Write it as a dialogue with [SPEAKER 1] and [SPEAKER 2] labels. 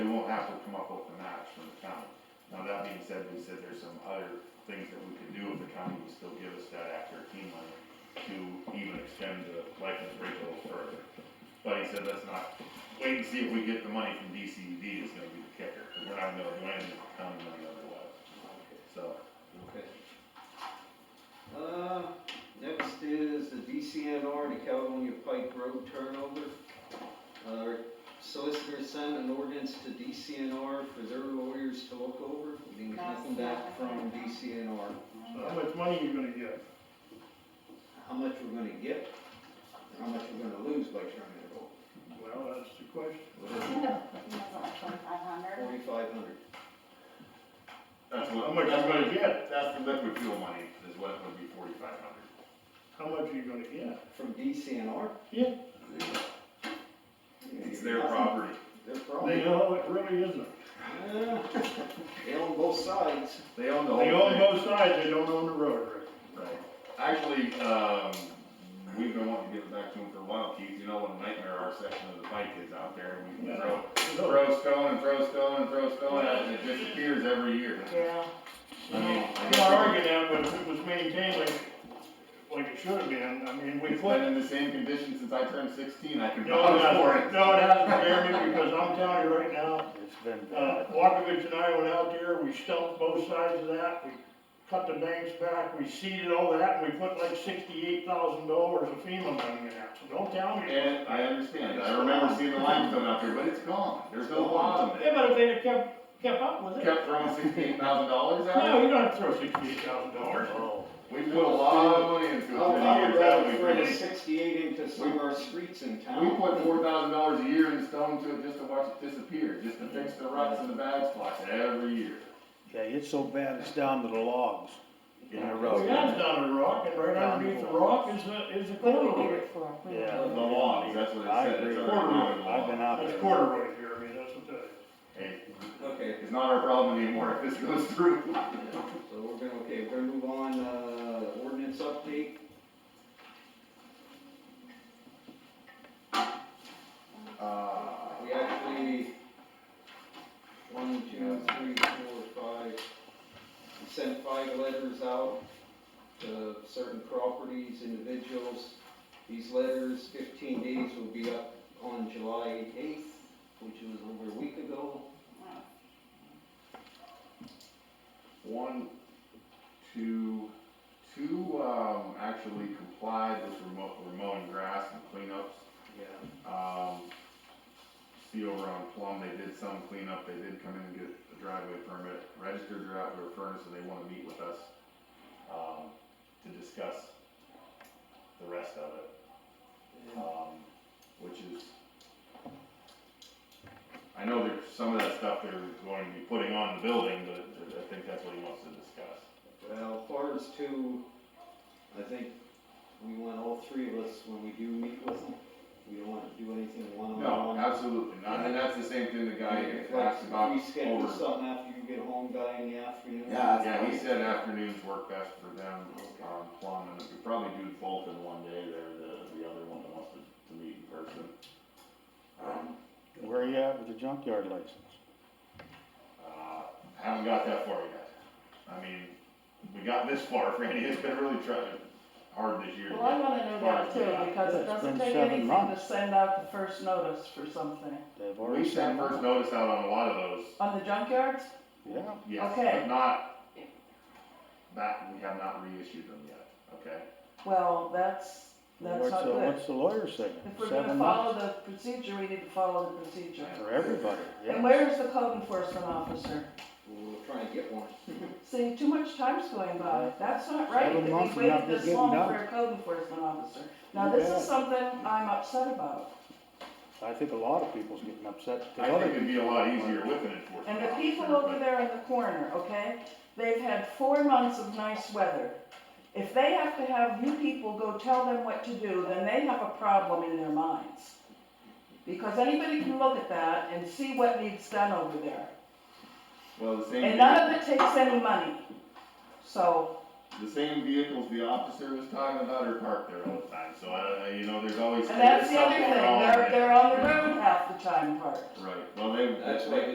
[SPEAKER 1] come up with a match from the county. Now, that being said, we said there's some other things that we could do if the county would still give us that Act thirteen money to even extend the license rate a little further. But he said, let's not, wait and see if we get the money from DCD is gonna be the kicker, because we're not gonna do anything with the county money otherwise, so.
[SPEAKER 2] Okay. Uh, next is the DCNR and the California Pike Road turnover. Uh, Our solicitor sent an ordinance to DCNR for their lawyers to look over, we didn't get nothing back from DCNR.
[SPEAKER 3] How much money you gonna get?
[SPEAKER 2] How much we're gonna get, and how much we're gonna lose by turning it over,
[SPEAKER 3] Well, that's the question.
[SPEAKER 4] Twenty-five hundred.
[SPEAKER 2] forty-five hundred.
[SPEAKER 1] That's what,
[SPEAKER 3] How much you gonna get?
[SPEAKER 1] that's the liquid fuel money, is what would be forty-five hundred.
[SPEAKER 3] How much are you gonna get?
[SPEAKER 2] From DCNR?
[SPEAKER 3] Yeah.
[SPEAKER 1] It's their property,
[SPEAKER 2] Their
[SPEAKER 3] They,
[SPEAKER 2] problem.
[SPEAKER 3] no, it really isn't.
[SPEAKER 2] Yeah. They own both sides.
[SPEAKER 1] they own the whole
[SPEAKER 3] They
[SPEAKER 1] thing.
[SPEAKER 3] own both sides, they don't own the road, Rick.
[SPEAKER 1] Right. Actually, um, we've been wanting to give it back to him for a while, Keith, you know what a nightmare our section of the bike is out there, and we can throw, throw stone and throw stone and throw stone at it, and it disappears every year.
[SPEAKER 3] Yeah.
[SPEAKER 1] I mean, I
[SPEAKER 3] I'm
[SPEAKER 1] guess
[SPEAKER 3] not
[SPEAKER 1] we're
[SPEAKER 3] arguing that, but if it was maintained like, like it should have been, I mean, we
[SPEAKER 1] It's
[SPEAKER 3] put.
[SPEAKER 1] been in the same condition since I turned sixteen, I can
[SPEAKER 3] No,
[SPEAKER 1] vouch for
[SPEAKER 3] it-
[SPEAKER 1] it.
[SPEAKER 3] no, it hasn't, Jeremy, because I'm telling you right now,
[SPEAKER 5] It's been
[SPEAKER 3] Uh,
[SPEAKER 5] bad.
[SPEAKER 3] Walkovich and I went out there, we stumped both sides of that, we cut the banks back, we seeded all that, and we put like sixty-eight thousand dollars of FEMA money in that, so don't tell me. Yeah,
[SPEAKER 1] And I understand, I remember seeing the limestone out there, but it's gone, there's no bottom, it
[SPEAKER 3] but if they'd have kept, kept up with it,
[SPEAKER 1] kept throwing sixteen thousand dollars
[SPEAKER 3] no,
[SPEAKER 1] out.
[SPEAKER 3] you don't have to throw sixty-eight thousand dollars.
[SPEAKER 5] Oh,
[SPEAKER 1] We put a lot of money into it,
[SPEAKER 2] I'll,
[SPEAKER 1] many
[SPEAKER 2] I'll
[SPEAKER 1] years
[SPEAKER 2] grab
[SPEAKER 1] out,
[SPEAKER 2] it
[SPEAKER 1] we
[SPEAKER 2] for the
[SPEAKER 1] really-
[SPEAKER 2] sixty-eight into some of our streets in
[SPEAKER 1] We
[SPEAKER 2] town.
[SPEAKER 1] put four thousand dollars a year in stone to it just to watch it disappear, just to fix the ruts and the bad spots every year.
[SPEAKER 5] yeah, it's so bad, it's down to the logs in the road.
[SPEAKER 3] That's down the rock, and right underneath the rock is the, is the corduroy.
[SPEAKER 5] Yeah.
[SPEAKER 1] The lawns, that's what it
[SPEAKER 5] I
[SPEAKER 1] said, it's
[SPEAKER 5] agree.
[SPEAKER 1] under the
[SPEAKER 5] I've been
[SPEAKER 1] lawn.
[SPEAKER 5] out
[SPEAKER 3] That's
[SPEAKER 5] there.
[SPEAKER 3] corduroy here, I mean, that's what that
[SPEAKER 1] Hey,
[SPEAKER 2] Okay,
[SPEAKER 1] it's not our problem anymore if this goes through.
[SPEAKER 2] so we're gonna, okay, we're gonna move on, uh, ordinance update.
[SPEAKER 1] Uh,
[SPEAKER 2] We actually, one, two, three, four, five, we sent five letters out to certain properties, individuals. These letters, fifteen days will be up on July eighth, which was over a week ago.
[SPEAKER 1] one, two, two, um, actually complied with remote, mowing grass and cleanups.
[SPEAKER 2] Yeah.
[SPEAKER 1] Um, see over on Plum, they did some cleanup, they did come in and get a driveway permit, registered their outdoor furnace, and they wanna meet with us, um, to discuss the rest of it, um, which is, I know there's some of that stuff they're going to be putting on the building, but I think that's what he wants to discuss.
[SPEAKER 2] Well, far as two, I think we want all three of us, when we do meet with them, we don't want to do anything
[SPEAKER 1] No,
[SPEAKER 2] one-on-one.
[SPEAKER 1] absolutely not, and that's the same thing the guy
[SPEAKER 2] Like,
[SPEAKER 1] asked about
[SPEAKER 2] We schedule
[SPEAKER 1] over.
[SPEAKER 2] something after you get home, guy, in the afternoon.
[SPEAKER 5] Yeah,
[SPEAKER 1] Yeah, he said afternoons work best for them,
[SPEAKER 2] Okay.
[SPEAKER 1] um, Plum, and we could probably do both in one day, there, the, the other one that wants to, to meet in person. Um,
[SPEAKER 5] Where are you at with the junkyard license?
[SPEAKER 1] uh, haven't got that far yet. I mean, we got this far, Franny, it's been really trying, hard this year. to
[SPEAKER 6] Well, I
[SPEAKER 1] get-
[SPEAKER 6] wanna know that too, because
[SPEAKER 5] Yeah,
[SPEAKER 6] it
[SPEAKER 5] it's
[SPEAKER 6] doesn't
[SPEAKER 5] been
[SPEAKER 6] take
[SPEAKER 5] seven
[SPEAKER 6] anything to
[SPEAKER 5] months.
[SPEAKER 6] send out the first notice for something.
[SPEAKER 5] They've
[SPEAKER 1] We
[SPEAKER 5] already
[SPEAKER 1] sent
[SPEAKER 5] sent them
[SPEAKER 1] first
[SPEAKER 5] out.
[SPEAKER 1] notice out on a lot of those,
[SPEAKER 6] On the junkyards?
[SPEAKER 5] Yeah,
[SPEAKER 1] yes,
[SPEAKER 6] Okay.
[SPEAKER 1] but not, that, we have not reissued them yet, okay?
[SPEAKER 6] Well, that's, that's
[SPEAKER 5] what's,
[SPEAKER 6] not
[SPEAKER 5] the-
[SPEAKER 6] good.
[SPEAKER 5] what's the lawyer saying?
[SPEAKER 6] If we're
[SPEAKER 5] Seven
[SPEAKER 6] gonna follow
[SPEAKER 5] months
[SPEAKER 6] the procedure, we need to follow the procedure.
[SPEAKER 5] For everybody,
[SPEAKER 6] And
[SPEAKER 5] yeah.
[SPEAKER 6] where is the code enforcement officer?
[SPEAKER 2] We'll try and get one.
[SPEAKER 6] See, too much time's going by, that's not right,
[SPEAKER 5] Seven
[SPEAKER 6] that
[SPEAKER 5] months
[SPEAKER 6] we
[SPEAKER 5] and
[SPEAKER 6] waited
[SPEAKER 5] nothing's
[SPEAKER 6] this
[SPEAKER 5] getting
[SPEAKER 6] long
[SPEAKER 5] done.
[SPEAKER 6] for a code enforcement officer. Now,
[SPEAKER 5] You
[SPEAKER 6] this
[SPEAKER 5] bet.
[SPEAKER 6] is something I'm upset about,
[SPEAKER 5] I think a lot of people's getting upset. 'cause
[SPEAKER 1] I
[SPEAKER 5] other
[SPEAKER 1] think it'd be a lot easier with an
[SPEAKER 6] and
[SPEAKER 1] enforcement
[SPEAKER 6] the
[SPEAKER 1] officer.
[SPEAKER 6] people
[SPEAKER 1] but-
[SPEAKER 6] over there in the corner, okay, they've had four months of nice weather. If they have to have you people go tell them what to do, then they have a problem in their minds. Because anybody can look at that and see what needs done over there,
[SPEAKER 1] Well, the same.
[SPEAKER 6] and none of it takes any money, so.
[SPEAKER 1] The same vehicles the officer was talking about are parked there all the time, so I, I- you know, there's always.
[SPEAKER 6] And that's
[SPEAKER 1] there's
[SPEAKER 6] the other
[SPEAKER 1] something
[SPEAKER 6] thing,
[SPEAKER 1] wrong
[SPEAKER 6] they're,
[SPEAKER 1] there.
[SPEAKER 6] they're on the road half the time part.
[SPEAKER 1] Right, well, they,
[SPEAKER 2] That's
[SPEAKER 1] they,
[SPEAKER 2] why